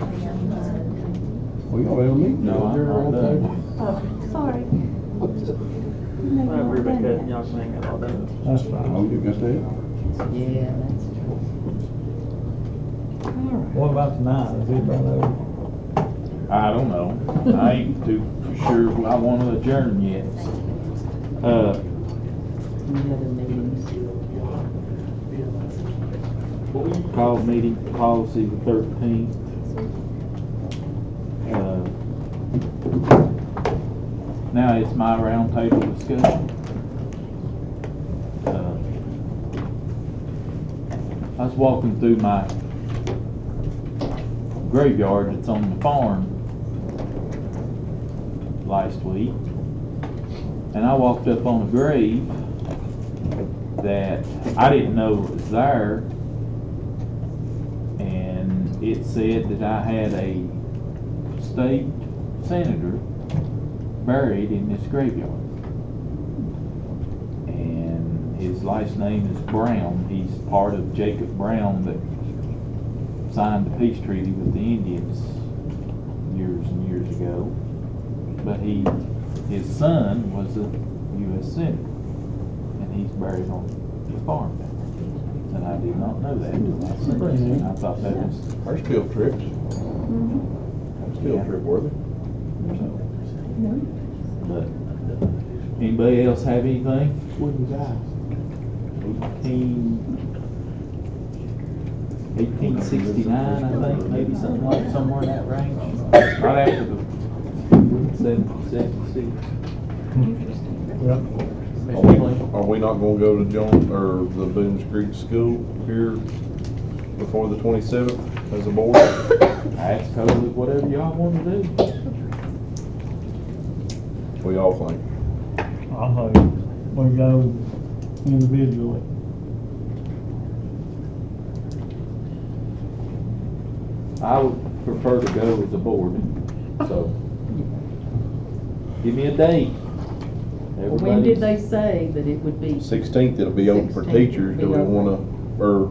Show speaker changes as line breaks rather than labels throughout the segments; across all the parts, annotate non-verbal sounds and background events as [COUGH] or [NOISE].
Okay.
We gonna have a meeting?
No, I'm not done.
Sorry.
I agree with that, y'all saying it all day.
That's fine. Oh, you can stay.
Yeah, that's true.
What about tonight? Does anybody know?
I don't know. I ain't too sure I want to adjourn yet. Uh,
Any other meetings?
call meeting policy the thirteenth. Uh, Now it's my roundtable discussion. Uh, I was walking through my graveyard that's on the farm last week. And I walked up on a grave that I didn't know was there. And it said that I had a state senator buried in this graveyard. And his last name is Brown. He's part of Jacob Brown that signed the peace treaty with the Indians years and years ago. But he, his son was a U.S. senator, and he's buried on the farm down there. And I did not know that until I seen this, and I thought that was
There's still trips. Still trip worthy.
But Anybody else have anything? Eighteen, eighteen sixty-nine, I think, maybe something like, somewhere in that range. Right after the seven, seventy-six.
Are we, are we not gonna go to John, or the Boones Creek School here before the twenty-seventh as a board?
That's totally whatever y'all wanna do.
We all think.
I hope we go individually.
I would prefer to go as a board, so. Give me a date.
When did
Everybody-
they say that it would be?
Sixteenth, it'll be open for
16th
teachers, do
will be
we
open.
wanna, or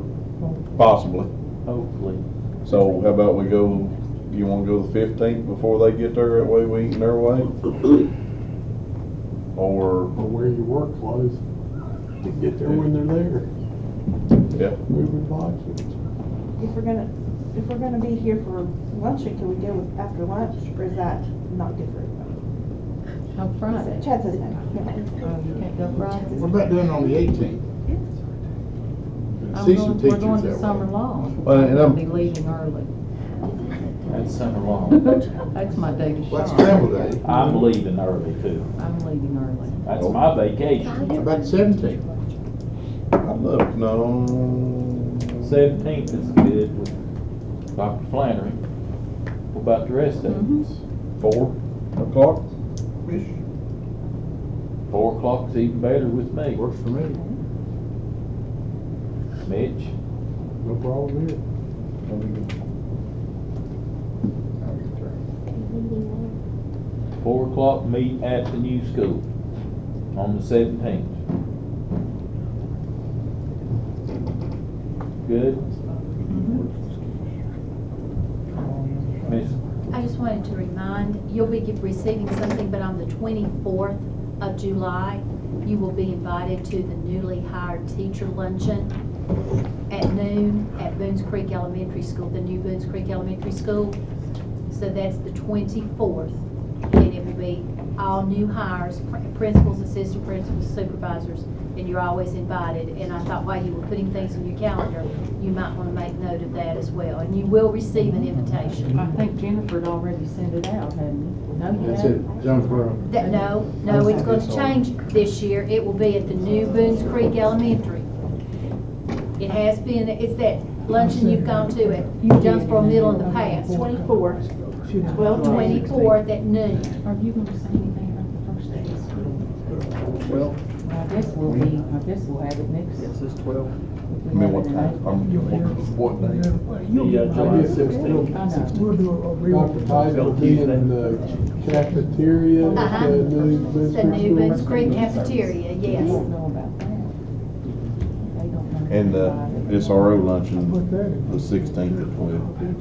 possibly.
Hopefully.
So how about we go, you wanna go the fifteenth before they get there, that way we eating their way? Or,
or where your work was to get there when they're there.
yeah,
Moving boxes.
If we're gonna, if we're gonna be here for luncheon, can we go with after lunch, or is that not good for everybody?
On Friday.
Chad says no.
Oh, you can't go Friday.
What about doing it on the eighteenth?
I'm
See
going-
some
We're
teachers
going
that
to
way.
summer law.
Well, and
I'll
I'm-
be
[LAUGHS]
leaving early.
That's summer
[LAUGHS]
long.
That's my day to
What's
shine.
travel day?
I'm leaving early too.
I'm leaving early.
That's my vacation.
About the seventeenth?
I look, no.
Seventeenth is good with Dr. Flannery. What about the rest of
Mhm.
us?
Four o'clock?
Four o'clock's even better with me.
Works for me.
Mitch,
No problem here.
four o'clock meet at the new school on the seventeenth. Good?
Uh-huh.
Miss,
I just wanted to remind, you'll be get- receiving something, but on the 24th of July, you will be invited to the newly hired teacher luncheon at noon at Boones Creek Elementary School, the new Boones Creek Elementary School. So that's the 24th, and it will be all new hires, pr- principals, assistant principals, supervisors, and you're always invited. And I thought while you were putting things on your calendar, you might want to make note of that as well. And you will receive an invitation.
I think Jennifer'd already sent it out, hadn't you? No, you
That's
hadn't?
it, Jonesboro.
That, no, no, it's going to change this year. It will be at the new Boones Creek Elementary. It has been, it's that luncheon you've gone to at Jonesboro Middle in the past,
Twenty-four, twelve, twenty.
twenty-fourth at noon.
Are you gonna say anything about the first day of school?
Well,
I guess we'll be, I guess we'll have it next.
Yes, it's twelve.
I mean, what time, I'm, what day?
the, uh,
I'll be at
July,
sixteen.
I know.
Dr. Tice will be in the cafeteria
Uh-huh.
at the new
It's the new Boones
business school.
Creek cafeteria,
They
yes.
don't know about that. They don't know.
And, uh,
about it.
SRO luncheon,
Put that in.
the sixteenth at twelve.